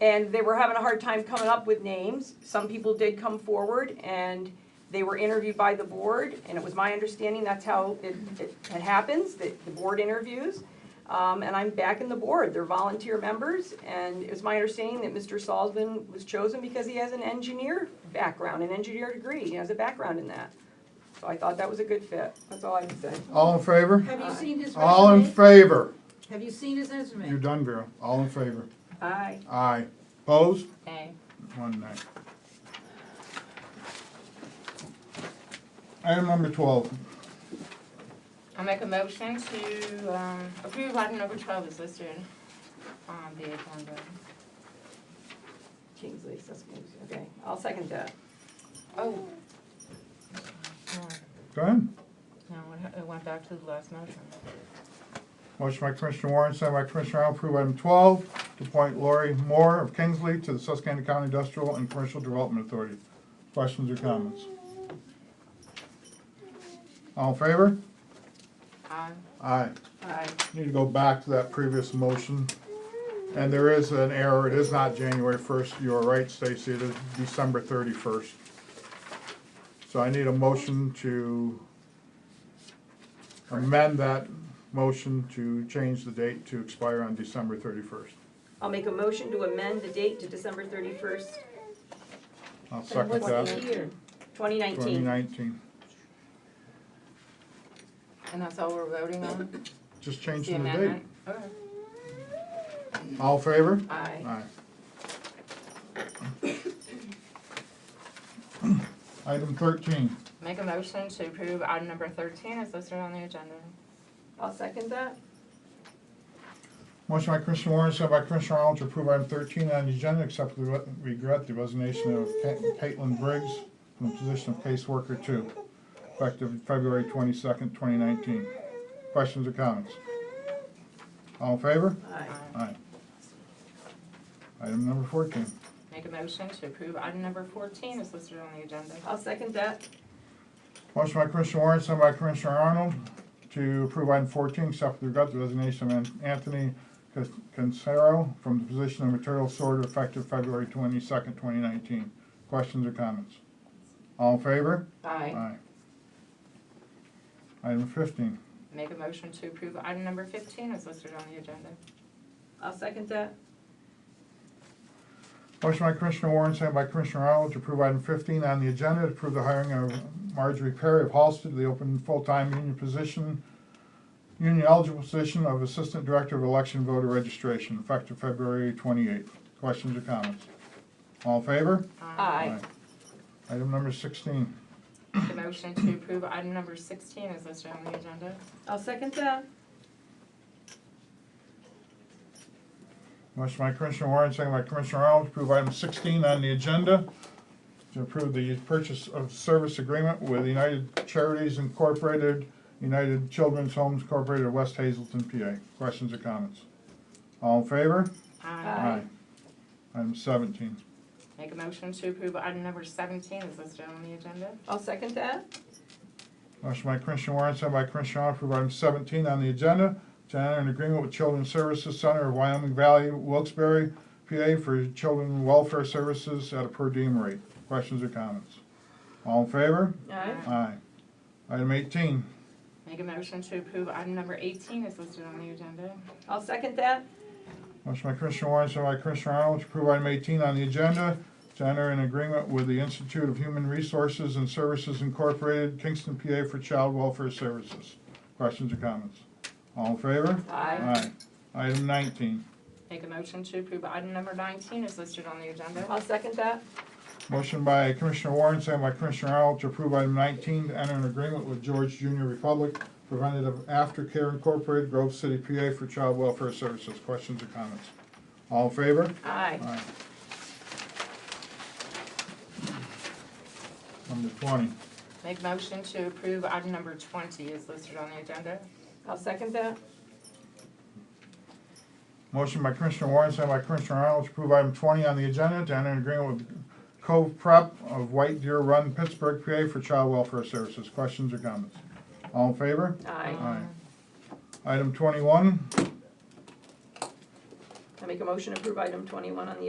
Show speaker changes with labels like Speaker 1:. Speaker 1: And they were having a hard time coming up with names. Some people did come forward and they were interviewed by the board, and it was my understanding that's how it, it it happens, that the board interviews. Um, and I'm backing the board, they're volunteer members, and it was my understanding that Mr. Salzman was chosen because he has an engineer background, an engineer degree, he has a background in that. So I thought that was a good fit, that's all I can say.
Speaker 2: All in favor?
Speaker 3: Have you seen his
Speaker 2: All in
Speaker 3: resume?
Speaker 2: favor?
Speaker 3: Have you seen his resume?
Speaker 2: You're done, Vera. All in favor?
Speaker 1: Aye.
Speaker 2: Aye. Opposed?
Speaker 4: Aye.
Speaker 2: One nay. Item number twelve.
Speaker 4: I'll make a motion to um, approve item number 12 is listed on the agenda.
Speaker 1: Kingsley, Suskins, okay, I'll second that.
Speaker 4: Oh.
Speaker 2: Go ahead.
Speaker 4: No, it ha- it went back to the last motion.
Speaker 2: Motion by Commissioner Warren, second by Commissioner Arnold, approve item twelve, to appoint Lori Moore of Kingsley to the Susquehanna County Industrial and Commercial Development Authority. Questions or comments? All in favor?
Speaker 4: Aye.
Speaker 2: Aye.
Speaker 1: Aye.
Speaker 2: Need to go back to that previous motion. And there is an error, it is not January first, you are right, Stacy, it is December thirty-first. So I need a motion to amend that motion to change the date to expire on December thirty-first.
Speaker 1: I'll make a motion to amend the date to December thirty-first,
Speaker 2: I'll
Speaker 3: And
Speaker 2: second
Speaker 3: what's the
Speaker 2: that.
Speaker 3: year?
Speaker 1: twenty
Speaker 2: Twenty
Speaker 1: nineteen.
Speaker 2: nineteen,
Speaker 4: And that's all we're voting on?
Speaker 2: just
Speaker 4: The
Speaker 2: changing the date.
Speaker 4: amendment? Okay.
Speaker 2: All in favor?
Speaker 4: Aye.
Speaker 2: Aye. Item thirteen.
Speaker 4: Make a motion to approve item number 13 is listed on the agenda.
Speaker 1: I'll second that.
Speaker 2: Motion by Commissioner Warren, second by Commissioner Arnold to approve item thirteen on the agenda, except with regret the resignation of Ca- Caitlin Briggs from the position of caseworker two, effective February twenty-second, twenty nineteen. Questions or comments? All in favor?
Speaker 1: Aye.
Speaker 2: Aye. Item number fourteen.
Speaker 4: Make a motion to approve item number 14 is listed on the agenda.
Speaker 1: I'll second that.
Speaker 2: Motion by Commissioner Warren, second by Commissioner Arnold to approve item fourteen, except with regret the resignation of Anthony Cas- Cancero from the position of material sorter effective February twenty-second, twenty nineteen. Questions or comments? All in favor?
Speaker 4: Aye.
Speaker 2: Item fifteen.
Speaker 4: Make a motion to approve item number 15 is listed on the agenda.
Speaker 1: I'll second that.
Speaker 2: Motion by Commissioner Warren, second by Commissioner Arnold to approve item fifteen on the agenda, to approve the hiring of Marjorie Perry of Halsted, the open full-time union position, union eligible position of Assistant Director of Election Voter Registration, effective February twenty-eighth. Questions or comments? All in favor?
Speaker 1: Aye.
Speaker 2: Item number sixteen.
Speaker 4: Make a motion to approve item number 16 is listed on the agenda.
Speaker 1: I'll second that.
Speaker 2: Motion by Commissioner Warren, second by Commissioner Arnold, to approve item sixteen on the agenda, to approve the purchase of service agreement with United Charities Incorporated, United Children's Homes Incorporated, West Hazelton, PA. Questions or comments? All in favor?
Speaker 1: Aye.
Speaker 2: Item seventeen.
Speaker 4: Make a motion to approve item number 17 is listed on the agenda.
Speaker 1: I'll second that.
Speaker 2: Motion by Commissioner Warren, second by Commissioner Arnold, to approve item seventeen on the agenda, to enter an agreement with Children's Services Center of Wyoming Valley, Wilkes-Barre, PA, for children welfare services at a per diem rate. Questions or comments? All in favor?
Speaker 1: Aye.
Speaker 2: Aye. Item eighteen.
Speaker 4: Make a motion to approve item number 18 is listed on the agenda.
Speaker 1: I'll second that.
Speaker 2: Motion by Commissioner Warren, second by Commissioner Arnold, to approve item eighteen on the agenda, to enter an agreement with the Institute of Human Resources and Services Incorporated, Kingston, PA, for child welfare services. Questions or comments? All in favor?
Speaker 1: Aye.
Speaker 2: Aye. Item nineteen.
Speaker 4: Make a motion to approve item number 19 is listed on the agenda.
Speaker 1: I'll second that.
Speaker 2: Motion by Commissioner Warren, second by Commissioner Arnold, to approve item nineteen, to enter an agreement with George Junior Republic Preventative Aftercare Incorporated, Grove City, PA, for child welfare services. Questions or comments? All in favor?
Speaker 1: Aye.
Speaker 2: Aye. Number twenty.
Speaker 4: Make a motion to approve item number 20 is listed on the agenda.
Speaker 1: I'll second that.
Speaker 2: Motion by Commissioner Warren, second by Commissioner Arnold, to approve item twenty on the agenda, to enter an agreement with Cove Prep of White Deer Run, Pittsburgh, PA, for child welfare services. Questions or comments? All in favor?
Speaker 1: Aye.
Speaker 2: Aye. Item twenty-one,
Speaker 1: I make a motion to approve item twenty-one on the